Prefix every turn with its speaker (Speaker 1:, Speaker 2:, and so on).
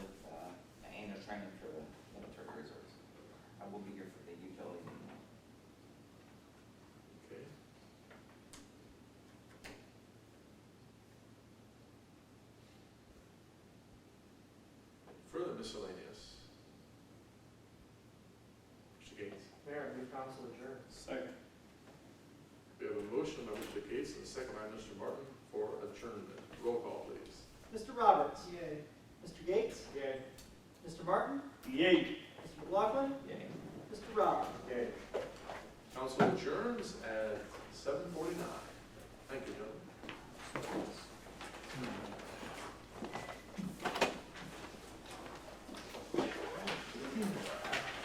Speaker 1: miscellaneous. Mr. Gates.
Speaker 2: Mayor, move council adjourn.
Speaker 3: Second.
Speaker 1: We have a motion by Mr. Gates and a second by Mr. Martin for adjournment. Roll call, please.
Speaker 4: Mr. Roberts.
Speaker 2: Yay.
Speaker 4: Mr. Gates.
Speaker 2: Yay.
Speaker 4: Mr. Martin.
Speaker 3: Yay.
Speaker 4: Mr. McLaughlin.
Speaker 2: Yay.
Speaker 4: Mr. Rob.
Speaker 2: Yay.
Speaker 1: Council adjourns at seven forty-nine. Thank you, gentlemen.